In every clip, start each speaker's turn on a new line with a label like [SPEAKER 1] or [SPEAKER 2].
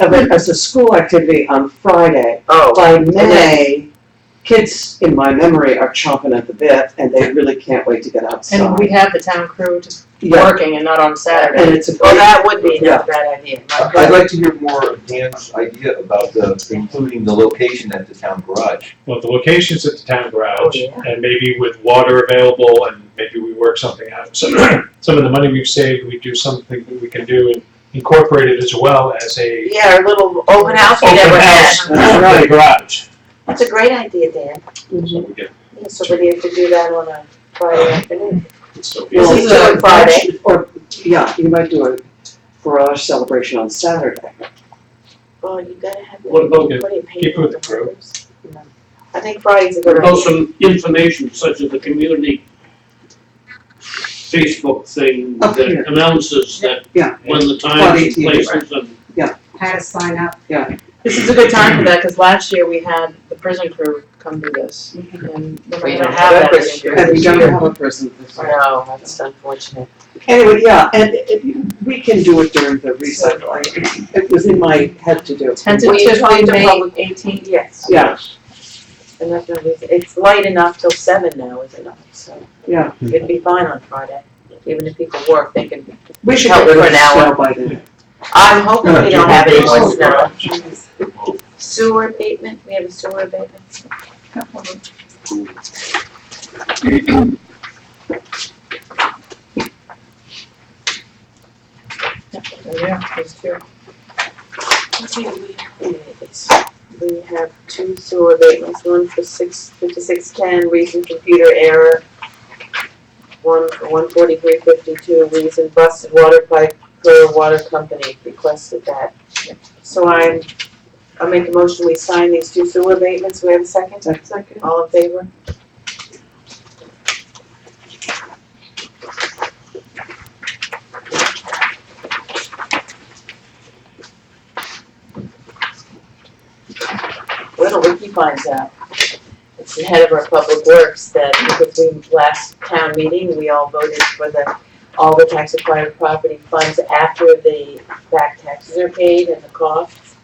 [SPEAKER 1] of it as a school activity on Friday.
[SPEAKER 2] Oh,
[SPEAKER 1] By May, kids, in my memory, are chomping at the bit and they really can't wait to get outside.
[SPEAKER 3] And we have the town crew just
[SPEAKER 1] Yeah,
[SPEAKER 3] working and not on Saturday.
[SPEAKER 1] and it's a
[SPEAKER 2] well,
[SPEAKER 1] great,
[SPEAKER 2] that would be
[SPEAKER 1] Yeah.
[SPEAKER 2] not a bad idea.
[SPEAKER 4] I'd like to hear more of Dan's idea about the, including the location at the town garage.
[SPEAKER 5] Well, the location's at the town garage,
[SPEAKER 2] Oh, yeah.
[SPEAKER 5] and maybe with water available, and maybe we work something out. So some of the money we've saved, we do something that we can do and incorporate it as well as a
[SPEAKER 2] Yeah, our little open house we
[SPEAKER 5] open
[SPEAKER 2] never had.
[SPEAKER 5] house in the garage.
[SPEAKER 2] That's a great idea, Dan.
[SPEAKER 5] So
[SPEAKER 6] Mm-hmm.
[SPEAKER 5] we get,
[SPEAKER 2] Yeah, Somebody have to do that on a Friday afternoon.
[SPEAKER 5] so we-
[SPEAKER 1] well,
[SPEAKER 2] This is on
[SPEAKER 1] or-
[SPEAKER 2] Friday.
[SPEAKER 1] Or, yeah, you might do a garage celebration on Saturday.
[SPEAKER 2] Well, you gotta have.
[SPEAKER 6] What about-
[SPEAKER 2] plenty of
[SPEAKER 5] Keep
[SPEAKER 2] paper
[SPEAKER 5] with
[SPEAKER 2] on
[SPEAKER 5] the crew.
[SPEAKER 2] windows. No. I think Friday's a good
[SPEAKER 6] What about
[SPEAKER 2] idea.
[SPEAKER 6] some information such as the community Facebook thing
[SPEAKER 1] Up here.
[SPEAKER 6] that announces that
[SPEAKER 1] Yeah.
[SPEAKER 6] when the
[SPEAKER 1] Friday,
[SPEAKER 6] times and
[SPEAKER 1] yeah.
[SPEAKER 6] places and
[SPEAKER 7] how to sign up.
[SPEAKER 3] This is a good time for that, cause last year we had the prison crew come do this, and we're not
[SPEAKER 2] Mm-hmm. We
[SPEAKER 3] gonna
[SPEAKER 2] don't
[SPEAKER 3] have
[SPEAKER 2] have
[SPEAKER 3] that
[SPEAKER 2] that
[SPEAKER 3] this
[SPEAKER 2] this
[SPEAKER 3] year.
[SPEAKER 2] year.
[SPEAKER 1] And we don't have a person this year.
[SPEAKER 2] No, that's unfortunate.
[SPEAKER 1] Anyway, yeah, and it- we can do it during the recess. I- It was in my head to do.
[SPEAKER 3] Tentatively
[SPEAKER 2] talked to
[SPEAKER 3] May
[SPEAKER 2] public-
[SPEAKER 3] eighteenth.
[SPEAKER 2] Yes.
[SPEAKER 1] Yeah,
[SPEAKER 2] And that's gonna be, it's light enough till seven now, is it not? So
[SPEAKER 1] yeah.
[SPEAKER 2] it'd be fine on Friday, even if people work, they can.
[SPEAKER 1] We should
[SPEAKER 2] Held
[SPEAKER 1] get rid
[SPEAKER 2] for
[SPEAKER 1] of
[SPEAKER 2] an hour.
[SPEAKER 1] snow by then.
[SPEAKER 2] I'm hoping we don't have any more
[SPEAKER 7] Oh,
[SPEAKER 2] snow.
[SPEAKER 7] Jeez.
[SPEAKER 2] Sewer abatement, we have a sewer abatement.
[SPEAKER 3] Yeah, that's true.
[SPEAKER 2] Okay, we have- We have two sewer abatements, one for six, fifty-six ten, reason computer error. One for one forty-three fifty-two, reason busted water pipe per water company requested that. So I'm, I'll make a motion, we sign these two sewer abatements, we have a second? Second. All in favor? Where do Ricky finds out? It's the head of our public works that because we last town meeting, we all voted for the all the tax acquired property funds after the back taxes are paid and the costs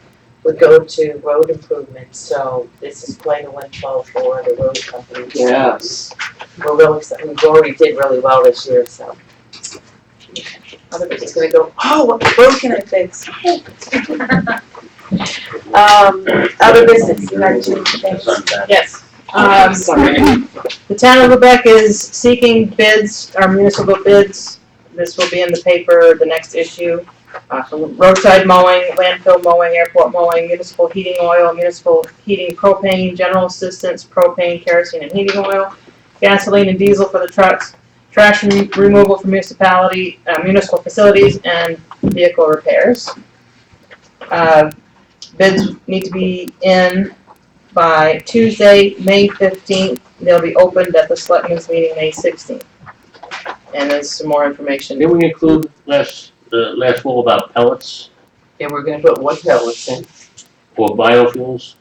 [SPEAKER 2] would go to road improvements, so this is quite a windfall for the road company.
[SPEAKER 1] Yes.
[SPEAKER 2] We're really, exci- we already did really well this year, so. Other people's gonna go, oh, what road can I fix? Um, other business, you had two things.
[SPEAKER 3] Yes. Um, The town of Quebec is seeking bids, our municipal bids. This will be in the paper, the next issue. Uh, for roadside mowing, landfill mowing, airport mowing, municipal heating oil, municipal heating propane, general assistance propane, kerosene and heating oil, gasoline and diesel for the trucks, trash and removal for municipality, uh, municipal facilities and vehicle repairs. Uh, bids need to be in by Tuesday, May fifteenth. They'll be opened at the selectmen's meeting, May sixteenth. And there's some more information.
[SPEAKER 6] Didn't we include last, the last one about pellets
[SPEAKER 2] Yeah, we're gonna put one pellets in.
[SPEAKER 6] or biofuels?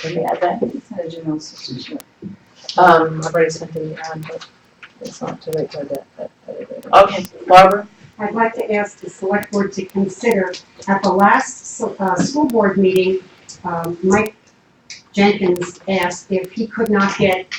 [SPEAKER 2] Can we add that?
[SPEAKER 7] It's not a general substitution.
[SPEAKER 2] Um,
[SPEAKER 3] I've already sent it around, but it's not too late for that, that, that.
[SPEAKER 2] okay, Barbara?
[SPEAKER 7] I'd like to ask the select board to consider, at the last so- uh, school board meeting, um, Mike Jenkins asked if he could not get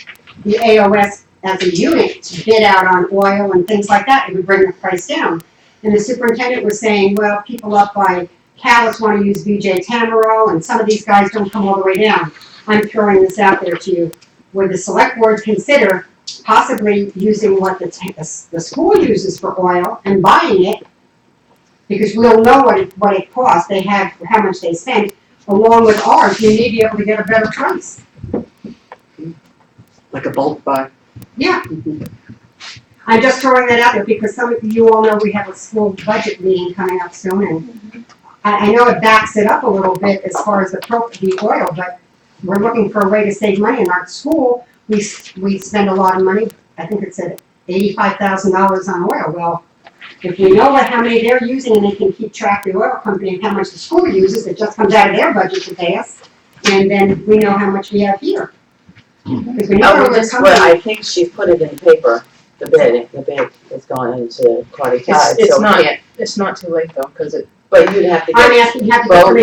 [SPEAKER 7] the AOS as a unit to bid out on oil and things like that, it would bring the price down. And the superintendent was saying, well, people up by Callis want to use VJ Tamaro, and some of these guys don't come all the way down. I'm throwing this out there to you, would the select board consider possibly using what the, ta- the s- the school uses for oil and buying it, because we'll know what it, what it costs, they have, how much they spent, along with ours, you may be able to get a better price.
[SPEAKER 1] Like a bulk buy.
[SPEAKER 7] Yeah. I'm just throwing that out there because some of you all know we have a school budget meeting coming up soon and I, I know it backs it up a little bit as far as the pro, the oil, but we're looking for a way to save money in our school. We, s- we spend a lot of money, I think it said eighty-five thousand dollars on oil. Well, if we know what, how many they're using and they can keep track of the oil company and how much the school uses, it just comes out of their budget to pay us. And then we know how much we have here. Because we
[SPEAKER 2] Oh,
[SPEAKER 7] know where
[SPEAKER 2] we
[SPEAKER 7] we're
[SPEAKER 2] just,
[SPEAKER 7] coming
[SPEAKER 2] well, I think she put it in the paper, the bid, the bid has gone into Cardi
[SPEAKER 3] It's,
[SPEAKER 2] Tide, so.
[SPEAKER 3] it's not, it's not too late though, cause it,
[SPEAKER 2] but you'd have to get.
[SPEAKER 7] I'm asking, have the
[SPEAKER 2] Well,
[SPEAKER 7] permission